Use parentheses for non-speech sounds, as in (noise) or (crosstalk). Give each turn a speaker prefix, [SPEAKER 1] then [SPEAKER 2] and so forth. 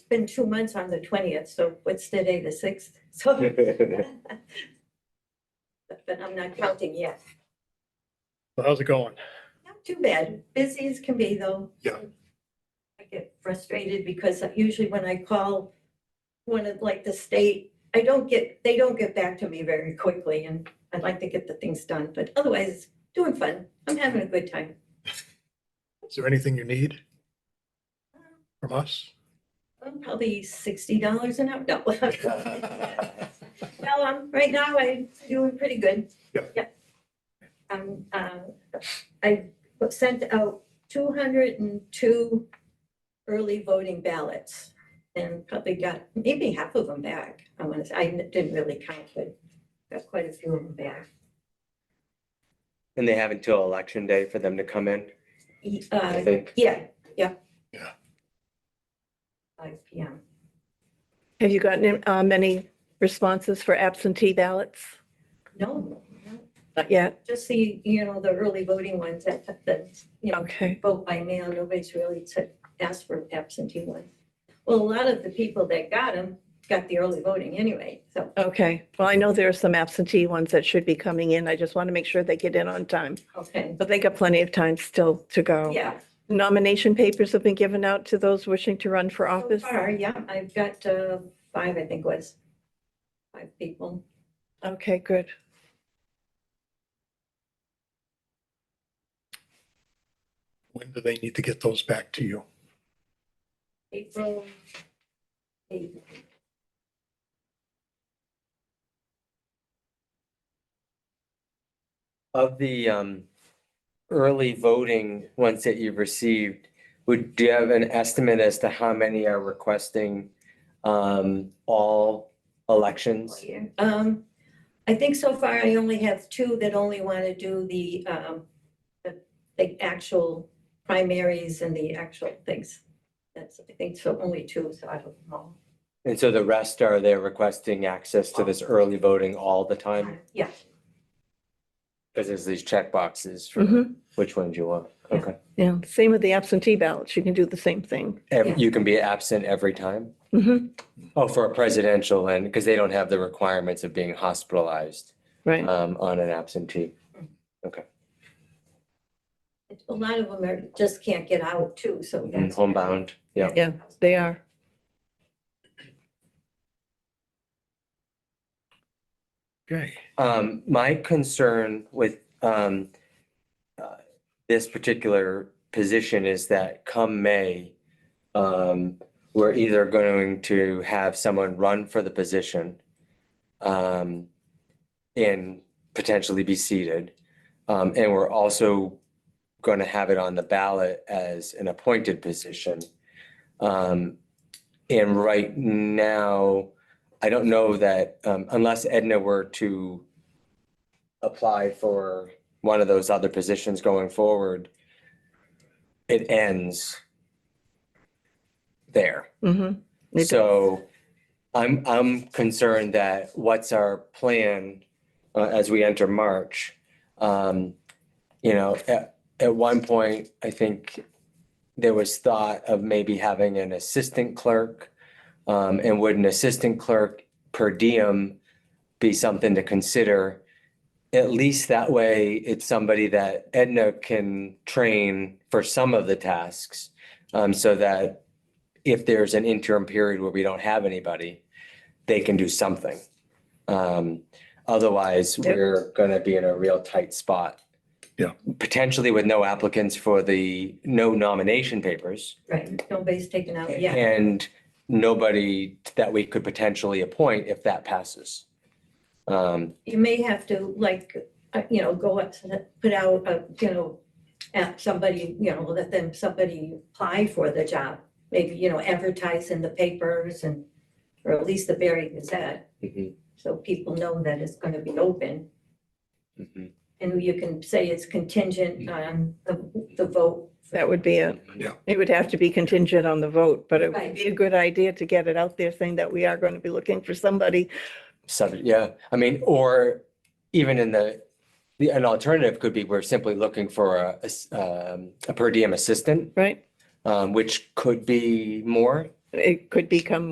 [SPEAKER 1] been two months on the twentieth, so what's today, the sixth? (laughs) So. But but I'm not counting yet.
[SPEAKER 2] So How's it going?
[SPEAKER 1] Not too bad. Busy as can be though.
[SPEAKER 2] Yeah.
[SPEAKER 1] I get frustrated because usually when I call one of like the state, I don't get, they don't get back to me very quickly and I'd like to get the things done, but otherwise doing fun. I'm having a good time.
[SPEAKER 2] Is there anything you need from us?
[SPEAKER 1] Um, Probably sixty dollars an hour. No.
[SPEAKER 2] (laughs)
[SPEAKER 1] (laughs) Well, um, right now I'm doing pretty good.
[SPEAKER 2] Yeah.
[SPEAKER 1] Um, um, I sent out two hundred and two early voting ballots and probably got maybe half of them back. I want to, I didn't really count, but got quite a few of them back.
[SPEAKER 3] And they have until election day for them to come in,
[SPEAKER 1] E-
[SPEAKER 3] I
[SPEAKER 1] Uh,
[SPEAKER 3] think.
[SPEAKER 1] yeah, yeah.
[SPEAKER 2] Yeah.
[SPEAKER 1] Five P M.
[SPEAKER 4] Have you gotten uh, many responses for absentee ballots?
[SPEAKER 1] No, no,
[SPEAKER 4] Not yet.
[SPEAKER 1] just the, you know, the early voting ones that, that, you know,
[SPEAKER 4] Okay.
[SPEAKER 1] vote by mail, nobody's really to ask for absentee ones. Well, a lot of the people that got them got the early voting anyway, so,
[SPEAKER 4] Okay. Well, I know there are some absentee ones that should be coming in. I just want to make sure they get in on time.
[SPEAKER 1] okay,
[SPEAKER 4] But they got plenty of time still to go.
[SPEAKER 1] yeah.
[SPEAKER 4] Nomination papers have been given out to those wishing to run for
[SPEAKER 1] So
[SPEAKER 4] office.
[SPEAKER 1] far, yeah, I've got uh, five, I think was, five people.
[SPEAKER 4] Okay, good.
[SPEAKER 2] When do they need to get those back to you?
[SPEAKER 1] April. eighth.
[SPEAKER 3] Of the um early voting ones that you've received, would, do you have an estimate as to how many are requesting um all elections?
[SPEAKER 1] Um, I think so far I only have two that only want to do the, um, the- the actual primaries and the actual things. That's, I think, so only two, so I don't know.
[SPEAKER 3] And so the rest are they're requesting access to this early voting all the time?
[SPEAKER 1] Yeah,
[SPEAKER 3] Because there's these check boxes for
[SPEAKER 4] Mhm.
[SPEAKER 3] which ones you want.
[SPEAKER 1] Mm-hmm. Yeah.
[SPEAKER 3] Okay.
[SPEAKER 4] Yeah. Same with the absentee ballots. You can do the same thing.
[SPEAKER 1] Yeah.
[SPEAKER 3] Ev- You can be absent every time?
[SPEAKER 4] Mhm.
[SPEAKER 3] Oh, for a presidential and, because they don't have the requirements of being hospitalized
[SPEAKER 4] Right.
[SPEAKER 3] um on an absentee.
[SPEAKER 1] a lot of them are, just can't get out too, so
[SPEAKER 3] And
[SPEAKER 1] that's.
[SPEAKER 3] homebound, yeah.
[SPEAKER 4] Yeah, they are.
[SPEAKER 2] Okay.
[SPEAKER 3] Um, my concern with, um, uh, this particular position is that come May, um, we're either going to have someone run for the position, um, and potentially be seated. Um, and we're also going to have it on the ballot as an appointed position. Um, and right now, I don't know that, um, unless Edna were to apply for one of those other positions going forward, it ends there.
[SPEAKER 4] Mhm. It does.
[SPEAKER 3] So I'm, I'm concerned that what's our plan uh, as we enter March? Um, You know, at, at one point, I think there was thought of maybe having an assistant clerk. Um, And would an assistant clerk per diem be something to consider? At least that way, it's somebody that Edna can train for some of the tasks. um, So that if there's an interim period where we don't have anybody, they can do something. Um, otherwise,
[SPEAKER 4] Yep.
[SPEAKER 3] we're gonna be in a real tight spot.
[SPEAKER 2] Yeah.
[SPEAKER 3] Potentially with no applicants for the, no nomination papers.
[SPEAKER 1] Right, nobody's taken out yet.
[SPEAKER 3] And nobody that we could potentially appoint if that passes. Um,
[SPEAKER 1] You may have to like, uh, you know, go up, to the- put out, uh, you know, at somebody, you know, let them, somebody apply for the job. Maybe, you know, advertise in the papers and, or at least the Berry Gazette,
[SPEAKER 3] mhm,
[SPEAKER 1] so people know that it's gonna be open.
[SPEAKER 3] mhm.
[SPEAKER 1] And you can say it's contingent on the, the vote.
[SPEAKER 4] That would be it.
[SPEAKER 2] Yeah.
[SPEAKER 4] It would have to be contingent on the vote, but it
[SPEAKER 1] Right.
[SPEAKER 4] would be a good idea to get it out there saying that we are going to be looking for somebody.
[SPEAKER 3] Subject, yeah, I mean, or even in the, the, an alternative could be we're simply looking for a, a s- um, a per diem assistant.
[SPEAKER 4] Right.
[SPEAKER 3] um, which could be more.
[SPEAKER 4] it could become